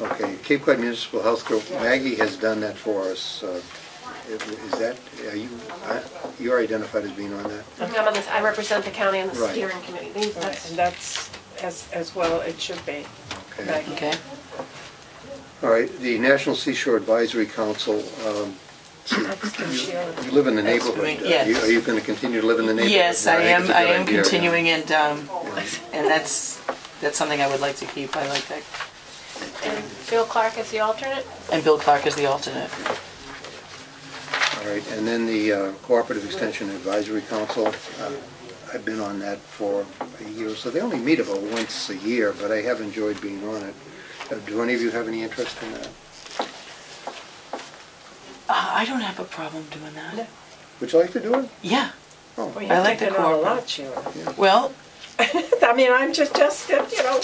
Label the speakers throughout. Speaker 1: Okay, Cape Cod Municipal Health Group, Maggie has done that for us. uh, Is that, are you, I- you're identified as being on that?
Speaker 2: I'm on this, I represent the county on the
Speaker 1: Right.
Speaker 2: steering committee. These-
Speaker 3: Right,
Speaker 2: that's-
Speaker 3: And that's, as, as well, it should be.
Speaker 1: Okay.
Speaker 3: Maggie.
Speaker 4: Okay.
Speaker 1: All right, the National Seashore Advisory Council, um, you live in the
Speaker 4: That's
Speaker 1: neighborhood.
Speaker 4: doing-
Speaker 1: Are you-
Speaker 4: yes.
Speaker 1: Are you going to continue to live in the neighborhood?
Speaker 4: Yes, I
Speaker 1: think
Speaker 4: am,
Speaker 1: it's a
Speaker 4: I
Speaker 1: good
Speaker 4: am
Speaker 1: idea.
Speaker 4: continuing and, um, and that's, that's something I would like to keep. I like that.
Speaker 2: And Bill Clark is the alternate?
Speaker 4: And Bill Clark is the alternate.
Speaker 1: All right, and then the uh, Cooperative Extension Advisory Council, uh, I've been on that for a year, so they only meet about once a year, but I have enjoyed being on it. Uh, Do any of you have any interest in that?
Speaker 4: Uh, I don't have a problem doing that.
Speaker 1: Would you like to do it?
Speaker 4: Yeah.
Speaker 1: Oh,
Speaker 3: Well,
Speaker 1: all
Speaker 3: you've
Speaker 4: I like the
Speaker 3: taken on a
Speaker 4: corporate.
Speaker 3: lot, Sheila.
Speaker 4: Well,
Speaker 3: I mean, I'm just, just, you know,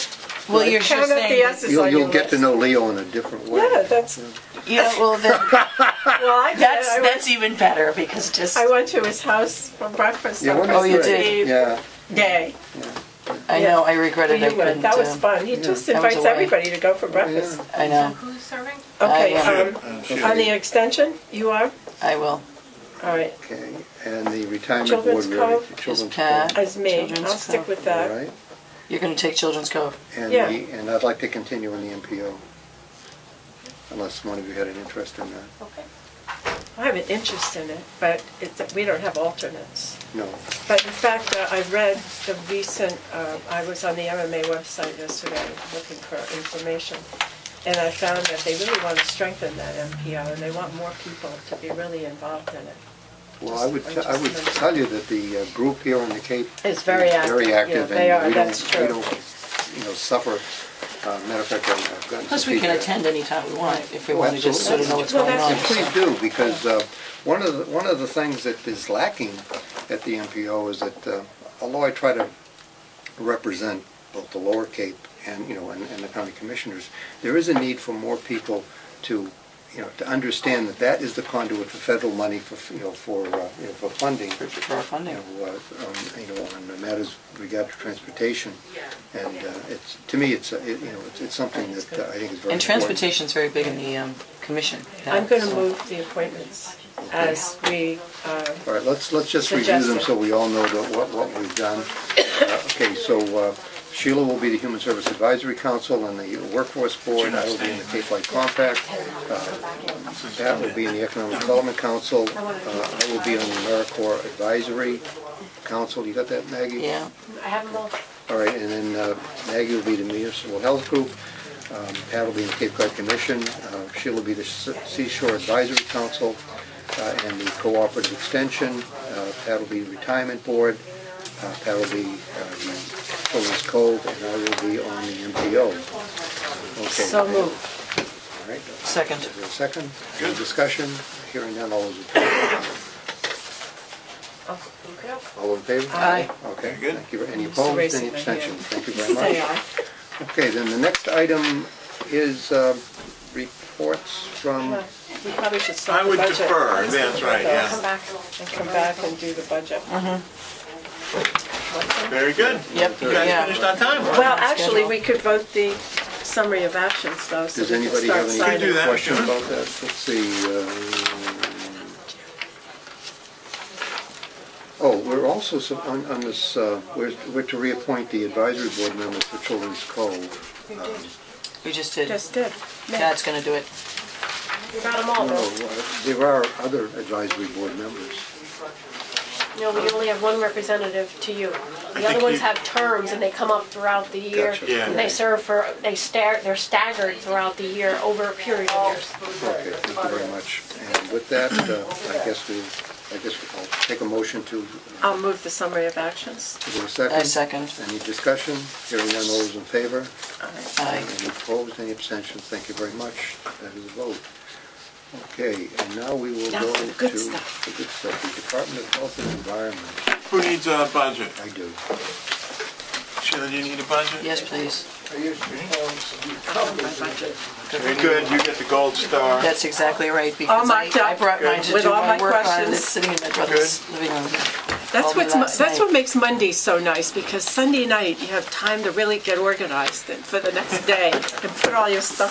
Speaker 4: well, you're just
Speaker 3: count up the
Speaker 4: saying.
Speaker 3: S's
Speaker 1: You'll,
Speaker 3: on your
Speaker 1: you'll get to
Speaker 3: list.
Speaker 1: know Leo in a different way.
Speaker 3: Yeah, that's,
Speaker 4: Yeah, well, then,
Speaker 3: well, I did,
Speaker 4: that's,
Speaker 3: I
Speaker 4: that's
Speaker 3: went,
Speaker 4: even better because just,
Speaker 3: I went to his house for breakfast
Speaker 1: Yeah,
Speaker 3: on
Speaker 1: one is
Speaker 4: Oh, you
Speaker 1: great.
Speaker 3: Christmas
Speaker 4: did.
Speaker 3: Eve
Speaker 1: Yeah,
Speaker 3: day.
Speaker 4: I know, I regretted I
Speaker 3: You went,
Speaker 4: couldn't.
Speaker 3: that was
Speaker 4: um,
Speaker 3: fun, he just
Speaker 4: I was
Speaker 3: invites
Speaker 4: away.
Speaker 3: everybody to go for breakfast.
Speaker 4: I know,
Speaker 2: Who's serving?
Speaker 4: Uh,
Speaker 3: Okay,
Speaker 4: I,
Speaker 3: um, on the extension, you are?
Speaker 4: I will.
Speaker 3: All right,
Speaker 1: okay, and the retirement board.
Speaker 3: Children's
Speaker 1: really-
Speaker 3: Cove
Speaker 4: Just
Speaker 1: Children's
Speaker 4: Pat.
Speaker 1: Cove,
Speaker 3: as me, I'll
Speaker 4: Children's
Speaker 3: stick
Speaker 4: Cove.
Speaker 3: with
Speaker 1: all
Speaker 3: that.
Speaker 1: right?
Speaker 4: You're going to take Children's Cove.
Speaker 1: And
Speaker 3: Yeah.
Speaker 1: the, and I'd like to continue on the MPO, unless one of you had an interest in that.
Speaker 2: Okay.
Speaker 3: I have an interest in it, but it's, we don't have alternates.
Speaker 1: No,
Speaker 3: But in fact, uh, I read the recent, uh, I was on the MMA website yesterday looking for information, and I found that they really want to strengthen that MPO, and they want more people to be really involved in it.
Speaker 1: well, I would,
Speaker 3: Just-
Speaker 1: te- I would
Speaker 3: just-
Speaker 1: tell you that the uh, group here on the Cape.
Speaker 3: It's very
Speaker 1: is
Speaker 3: active.
Speaker 1: Very
Speaker 3: Yeah,
Speaker 1: active,
Speaker 3: they
Speaker 1: and
Speaker 3: are.
Speaker 1: we don't,
Speaker 3: That's
Speaker 1: we
Speaker 3: true.
Speaker 1: don't, you know, suffer, uh, matter of fact, I've gotten some
Speaker 4: Plus, we can
Speaker 1: feedback.
Speaker 4: attend anytime we want if we
Speaker 1: Oh,
Speaker 4: want to just sort of know what's
Speaker 3: Well,
Speaker 4: going on.
Speaker 1: And please do, because uh, one of, the one of the things that is lacking at the MPO is that, uh, although I try to represent both the Lower Cape and, you know, and and the county commissioners, there is a need for more people to, you know, to understand that that is the conduit for federal money for, you know, for, uh, you know, for funding.
Speaker 4: For our funding.
Speaker 1: You know, uh, um, you know, on the matters regarding transportation. And uh, it's, to me, it's, a- it- you know, it's- it's something that uh, I think is very important.
Speaker 4: And transportation's very big in the um, commission.
Speaker 3: I'm going to
Speaker 4: So-
Speaker 3: move the appointments as we, uh,
Speaker 1: All right, let's, let's just review them so we all know that what, what we've done. Uh, Okay, so uh, Sheila will be the Human Service Advisory Council and the Workforce Board. I will be in the Cape Light Compact. Uh, Pat will be in the Economic Development Council. Uh, I will be on the AmeriCorps Advisory Council. You got that, Maggie?
Speaker 4: Yeah.
Speaker 2: I have them all.
Speaker 1: All right, and then uh, Maggie will be the Municipal Health Group, um, Pat will be the Cape Cod Commission, uh, Sheila will be the Se- Seashore Advisory Council uh, and the Cooperative Extension, uh, Pat will be the Retirement Board, uh, Pat will be uh, the Children's Cove, and I will be on the MPO. Okay.
Speaker 3: so move.
Speaker 1: All right, is
Speaker 4: Second.
Speaker 1: there a second? Any discussion? Hearing none, all those in favor?
Speaker 2: Oh, you go.
Speaker 1: All in favor?
Speaker 4: Aye.
Speaker 1: Okay,
Speaker 5: Very good.
Speaker 1: thank you. Any
Speaker 3: Just
Speaker 1: opposed,
Speaker 3: raising
Speaker 1: any
Speaker 3: my hand.
Speaker 1: abstentions? Thank you very much.
Speaker 3: Say aye.
Speaker 1: Okay, then the next item is uh, reports from,
Speaker 3: Well, We probably should
Speaker 5: I
Speaker 3: start the
Speaker 5: would
Speaker 3: budget.
Speaker 5: defer, that's
Speaker 2: Come
Speaker 5: right, yeah.
Speaker 2: back.
Speaker 3: And come back and do the budget.
Speaker 5: Very good.
Speaker 4: Yep.
Speaker 5: You guys
Speaker 4: Yeah.
Speaker 5: finished on time. huh?
Speaker 3: Well, actually, we could vote the summary of actions, though, so we
Speaker 1: does
Speaker 3: can
Speaker 1: anybody
Speaker 3: start
Speaker 1: have
Speaker 5: Could do
Speaker 3: signing.
Speaker 1: any
Speaker 5: that,
Speaker 1: questions
Speaker 5: sure.
Speaker 1: about that? Let's see. uh, um, Oh, we're also, sup- on on this, uh, we're we're to reappoint the advisory board members for Children's Cove.
Speaker 4: We just did.
Speaker 3: Just did.
Speaker 4: That's going to do it.
Speaker 2: You got them all,
Speaker 1: No,
Speaker 2: though.
Speaker 1: uh, there are other advisory board members.
Speaker 2: No, we only have one representative to you. The other
Speaker 5: think
Speaker 2: ones
Speaker 5: you-
Speaker 2: have terms and they come up throughout the year.
Speaker 1: Gotcha.
Speaker 5: Yeah.
Speaker 2: And They serve for, they stagger, they're staggered throughout the year over a period of years.
Speaker 1: Okay, thank you very much. And with that, uh, I guess we, I guess I'll take a motion to,
Speaker 3: I'll move the summary of actions.
Speaker 1: is there a
Speaker 4: I second.
Speaker 1: Any discussion? Hearing none, all those in favor?
Speaker 4: Aye.
Speaker 1: Any opposed, any abstentions? Thank you very much. That is a vote. Okay, and now we will
Speaker 3: Now
Speaker 1: go
Speaker 3: for
Speaker 1: to...
Speaker 3: the good stuff.
Speaker 1: The good stuff, the Department of Health and Environment.
Speaker 5: Who needs a budget?
Speaker 1: I do.
Speaker 5: Sheila, do you need a budget?
Speaker 4: Yes, please.
Speaker 5: Very good, you get the gold star.
Speaker 4: That's exactly right because I,
Speaker 3: marked up
Speaker 4: I brought mine to
Speaker 3: with
Speaker 4: do
Speaker 3: all
Speaker 4: my
Speaker 3: my
Speaker 4: work on.
Speaker 3: questions.
Speaker 4: It's sitting in my brother's living room.
Speaker 3: That's
Speaker 4: All my
Speaker 3: what's, mo-
Speaker 4: last
Speaker 3: that's
Speaker 4: night.
Speaker 3: what makes Mondays so nice, because Sunday night, you have time to really get organized and for the next day and put all your stuff